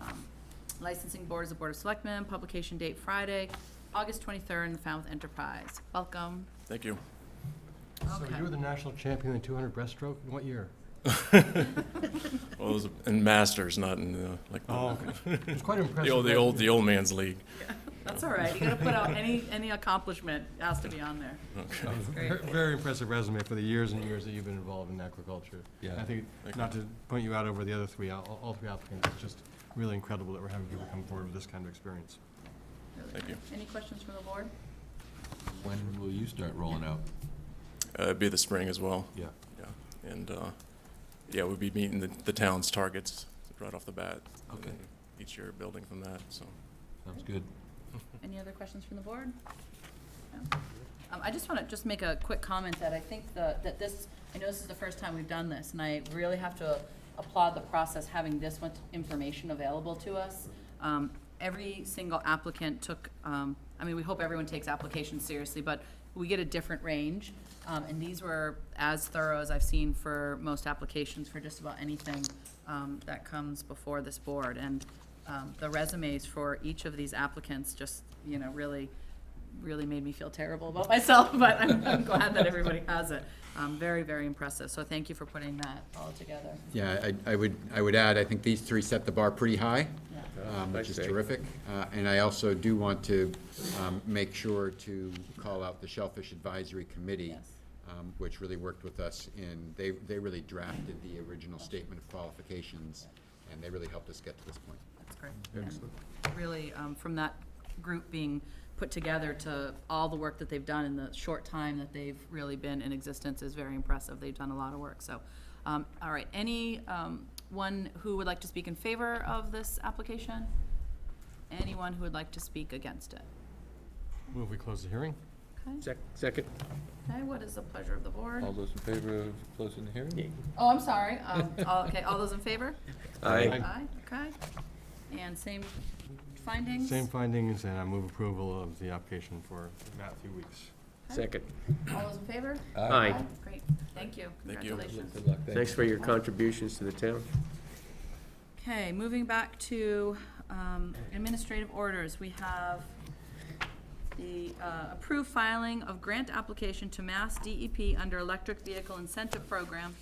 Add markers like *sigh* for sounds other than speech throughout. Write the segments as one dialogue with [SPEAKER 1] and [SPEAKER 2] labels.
[SPEAKER 1] Um, Licensing Board is the Board of Selectmen, publication date Friday, August 23rd in the Falmouth Enterprise. Welcome.
[SPEAKER 2] Thank you.
[SPEAKER 3] So
[SPEAKER 1] Okay.
[SPEAKER 3] you were the national champion in 200 breaststroke, in what year?
[SPEAKER 2] Well, it was in masters, not in uh, like the,
[SPEAKER 4] Oh,
[SPEAKER 3] It was quite impressive.
[SPEAKER 2] the old, the
[SPEAKER 3] that-
[SPEAKER 2] old, the old man's league.
[SPEAKER 1] That's all right. You gotta put out any, any accomplishment has to be on there.
[SPEAKER 3] *laughs*
[SPEAKER 1] That's great.
[SPEAKER 3] Ver- Very impressive resume for the years and years that you've been involved in agriculture.
[SPEAKER 4] Yeah.
[SPEAKER 3] I think,
[SPEAKER 2] Thank
[SPEAKER 3] not to point you out over the other three, all all three applicants, it's just really incredible that we're having people come forward with this kind of experience.
[SPEAKER 1] Really
[SPEAKER 2] Thank
[SPEAKER 1] good. Any questions from the board?
[SPEAKER 4] When will you start rolling out?
[SPEAKER 2] Uh, it'd be the spring as well.
[SPEAKER 4] Yeah.
[SPEAKER 2] Yeah. And, uh, yeah, we'd be meeting the, the town's targets right off the bat. and
[SPEAKER 4] Okay.
[SPEAKER 2] then Each year building from that, so.
[SPEAKER 4] Sounds good.
[SPEAKER 1] Any other questions from the board? No. Um, I just want to just make a quick comment that I think the, that this, I know this is the first time we've done this, and I really have to applaud the process having this much information available to us. Um, every single applicant took, um, I mean, we hope everyone takes applications seriously, but we get a different range. Um, and these were as thorough as I've seen for most applications for just about anything, um, that comes before this board. And, um, the resumes for each of these applicants just, you know, really, really made me feel terrible about myself, *laughs* but I'm, I'm glad that everybody has it. Um, very, very impressive. So thank you for putting that all together.
[SPEAKER 5] Yeah, I, I would, I would add, I think these three set the bar pretty high,
[SPEAKER 1] Yeah.
[SPEAKER 5] um, which is terrific. Uh, And I also do want to um, make sure to call out the Shellfish Advisory Committee,
[SPEAKER 1] Yes.
[SPEAKER 5] um, which really worked with us in, they, they really drafted the original statement of qualifications, and they really helped us get to this point.
[SPEAKER 1] That's great. And Really, um, from that group being put together to all the work that they've done in the short time that they've really been in existence is very impressive. They've done a lot of work, so. Um, all right, any, um, one who would like to speak in favor of this application? Anyone who would like to speak against it?
[SPEAKER 3] Move we close the hearing?
[SPEAKER 1] Okay,
[SPEAKER 6] Sec- Second.
[SPEAKER 1] okay, what is the pleasure of the board?
[SPEAKER 4] All those in favor of closing the hearing?
[SPEAKER 1] Oh, I'm sorry, um, all, okay, all those in favor?
[SPEAKER 3] Aye.
[SPEAKER 1] Aye, okay. And same findings?
[SPEAKER 3] Same findings, and I move approval of the application for Matthew Weeks.
[SPEAKER 6] Second.
[SPEAKER 1] All those in favor?
[SPEAKER 6] Aye.
[SPEAKER 1] Great, thank you,
[SPEAKER 2] Thank you.
[SPEAKER 1] congratulations.
[SPEAKER 4] Good luck.
[SPEAKER 6] Thanks for your contributions to the town.
[SPEAKER 1] Okay, moving back to um, administrative orders, we have the uh, approved filing of grant application to Mass DEP under Electric Vehicle Incentive Program.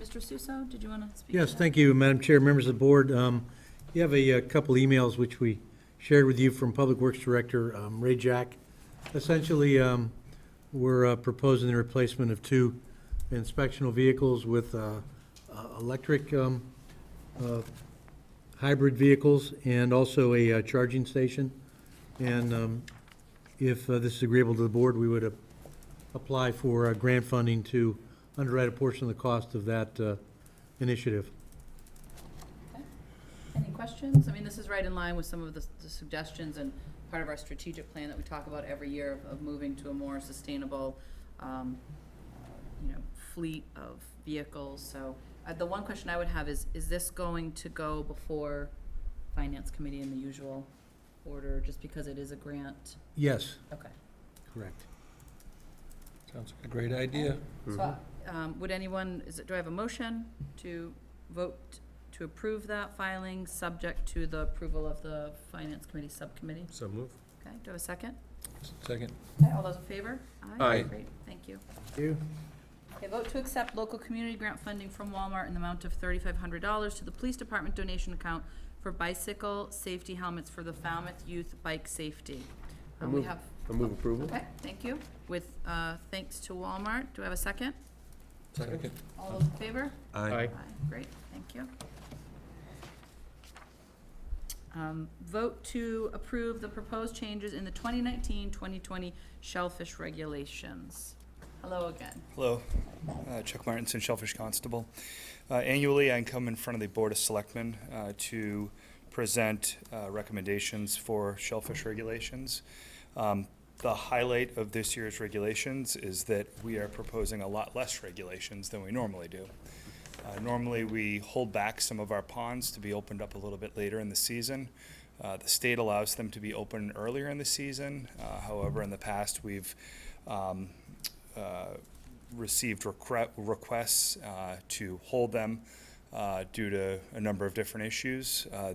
[SPEAKER 1] Mr. Suso, did you want to speak? to
[SPEAKER 7] Yes,
[SPEAKER 1] that?
[SPEAKER 7] thank you, Madam Chair, members of the board. Um, You have a uh, couple emails which we shared with you from Public Works Director um, Ray Jack. Essentially, um, we're uh, proposing the replacement of two inspectional vehicles with uh, uh, electric um, uh, hybrid vehicles and also a uh, charging station. And um, if uh, this is agreeable to the board, we would uh, apply for uh, grant funding to underwrite a portion of the cost of that uh, initiative.
[SPEAKER 1] Any questions? I mean, this is right in line with some of the the suggestions and part of our strategic plan that we talk about every year of- of moving to a more sustainable, um, uh, you know, fleet of vehicles. So uh, the one question I would have is, is this going to go before Finance Committee in the usual order, just because it is a grant?
[SPEAKER 7] Yes,
[SPEAKER 1] Okay.
[SPEAKER 7] correct.
[SPEAKER 4] Sounds like a great idea.
[SPEAKER 1] So um, would anyone, is it, do I have a motion to vote to approve that filing, subject to the approval of the Finance Committee Subcommittee?
[SPEAKER 3] So move.
[SPEAKER 1] Okay, do I have a second?
[SPEAKER 4] Second.
[SPEAKER 1] Okay, all those in favor?
[SPEAKER 6] Aye.
[SPEAKER 1] Great, thank you.
[SPEAKER 7] You?
[SPEAKER 1] Okay, vote to accept local community grant funding from Walmart in the amount of thirty-five hundred dollars to the police department donation account for bicycle safety helmets for the Falmouth Youth Bike Safety.
[SPEAKER 6] I
[SPEAKER 1] Um, we
[SPEAKER 6] move-
[SPEAKER 1] have,
[SPEAKER 6] I move approval.
[SPEAKER 1] okay, thank you, with, uh, thanks to Walmart, do I have a second?
[SPEAKER 4] Second.
[SPEAKER 1] All those in favor?
[SPEAKER 6] Aye.
[SPEAKER 1] Aye, great, thank you. Um, vote to approve the proposed changes in the 2019-2020 shellfish regulations. Hello again.
[SPEAKER 8] Hello, Uh, Chuck Martinson, Shellfish Constable. Uh, Annually, I come in front of the Board of Selectmen uh, to present uh, recommendations for shellfish regulations. Um, The highlight of this year's regulations is that we are proposing a lot less regulations than we normally do. Uh, Normally, we hold back some of our ponds to be opened up a little bit later in the season. Uh, The state allows them to be open earlier in the season. Uh, However, in the past, we've um, uh, received requ- requests uh, to hold them uh, due to a number of different issues. Uh,